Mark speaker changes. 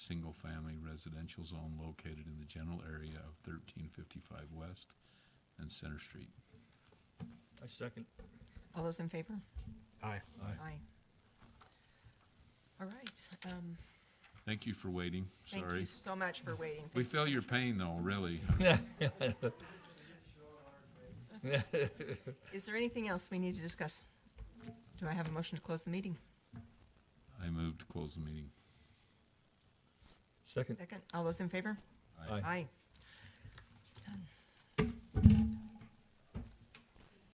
Speaker 1: single-family residential zone located in the general area of 1355 West and Center Street.
Speaker 2: I second.
Speaker 3: All those in favor?
Speaker 2: Aye.
Speaker 3: Aye. All right, um,
Speaker 1: Thank you for waiting,
Speaker 3: thank you
Speaker 1: sorry.
Speaker 3: so much for waiting.
Speaker 1: We
Speaker 3: Thank you
Speaker 1: feel
Speaker 3: so
Speaker 1: your
Speaker 3: much.
Speaker 1: pain, though, really.
Speaker 3: Is there anything else we need to discuss? Do I have a motion to close the meeting?
Speaker 1: I move to close the meeting.
Speaker 2: Second.
Speaker 3: Second, all those in favor?
Speaker 2: Aye.
Speaker 3: Aye. Done.